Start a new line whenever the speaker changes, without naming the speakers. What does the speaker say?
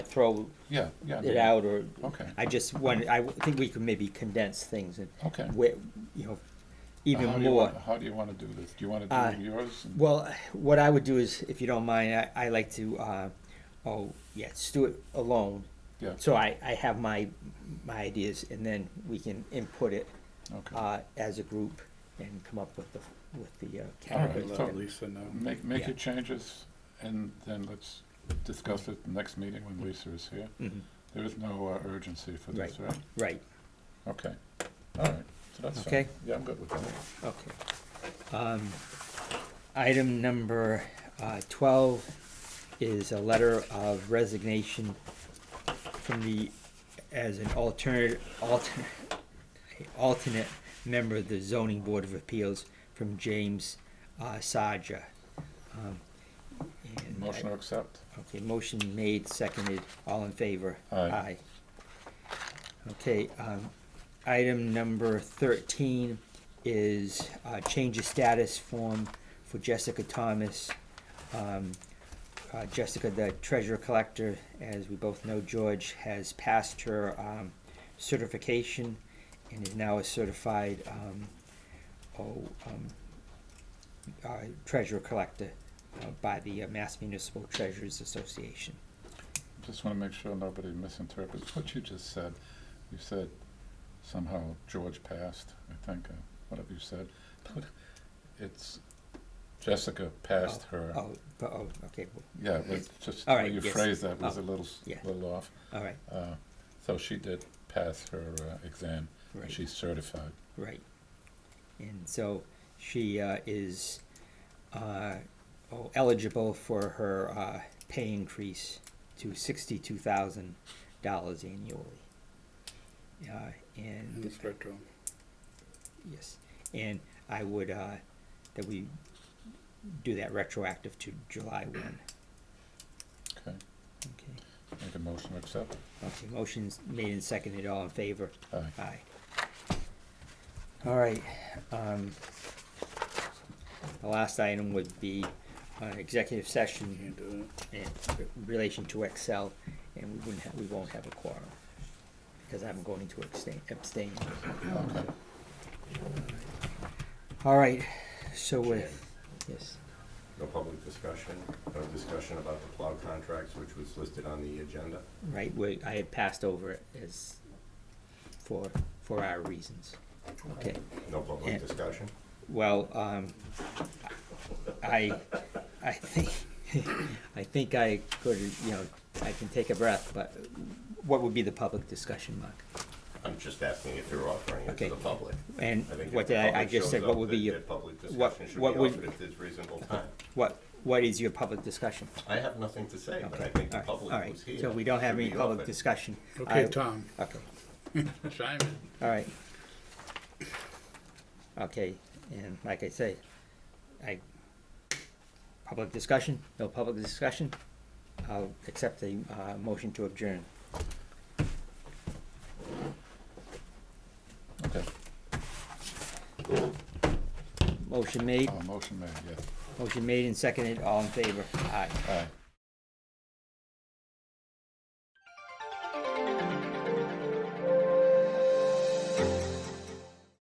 throw
Yeah, yeah.
it out or.
Okay.
I just wanted, I think we could maybe condense things and.
Okay.
Where, you know,
How
even
do you
more.
wanna- How do you wanna do this? Do you wanna
Uh,
do yours? and-
Well, what I would do is, if you don't mind, I, I like to, uh, oh, yeah, just do it alone.
Yeah,
So I, I have my, my ideas and then we can input it,
okay.
uh, as a group and come up with the, with the, uh,
All
category.
right,
Let
so-
Lisa know.
Make, make
yeah.
your changes and then let's discuss it next meeting when Lisa is here.
Mhm,
There is no uh, urgency for this, right?
Right,
Okay, all right, so that's fine.
Okay.
Yeah, I'm good with that.
okay. Um, item number, uh, twelve is a letter of resignation from the, as an alternate, alternate, alternate member of the zoning board of appeals from James, uh, Saja. Um, and I-
Motion to accept?
Okay, motion made, seconded, all in favor?
Aye.
Okay, um, item number thirteen is, uh, change of status form for Jessica Thomas. Um, uh, Jessica, the treasurer collector, as we both know, George, has passed her, um, certification and is now a certified, um, oh, um, uh, treasurer collector uh, by the uh, Mass Municipal Treasurers Association.
Just wanna make sure nobody misinterprets what you just said. You said somehow George passed, I think, uh, whatever you said. It's Jessica passed her.
Oh, but- oh, okay, well,
Yeah, but just the
All
way
right,
you
yes.
phrased that was
Oh,
a little, s-
yeah.
little off.
all right,
Uh, So she did pass her uh, exam, and
right,
she's certified.
right. And so she uh, is uh, oh, eligible for her uh, pay increase to sixty-two thousand dollars annually. Uh,
And
And
it's retro.
Yes, and I would, uh, that we do that retroactive to July one.
Okay,
Okay,
make a motion to accept. Uh,
okay, motions made and seconded, all in favor?
Aye.
Aye. All right, um, the last item would be, uh, executive session
Can't do it.
in relation to Excel, and we wouldn't have, we won't have a quorum, because I'm going to abstain, abstain.
Okay.
All right, so with, yes.
No public discussion, no discussion about the plow contracts, which was listed on the agenda.
Right, where I had passed over it as, for, for our reasons. Okay,
No
Yeah.
public discussion.
well, um, I, I think, I think I could, you know, I can take a breath, but what would be the public discussion, Mark?
I'm just asking if you're offering it
Okay.
to the public.
And
I think if
what
the
did I, I
public
just said,
shows
what
up,
would be
that-
your,
that Public
what-
discussion should be
what would-
offered at this reasonable time.
what, what is your public discussion?
I have nothing to say, but I
Okay,
think the
all right, all
public
right.
was here.
So we don't have
should
any
be
public
offered.
discussion.
Okay,
I-
Tom,
Okay.
chime in.
All right. Okay, and like I say, I, public discussion, no public discussion, I'll accept the, uh, motion to adjourn.
Okay,
Motion made,
Uh, motion made, yes.
motion made and seconded, all in favor, aye.
Aye.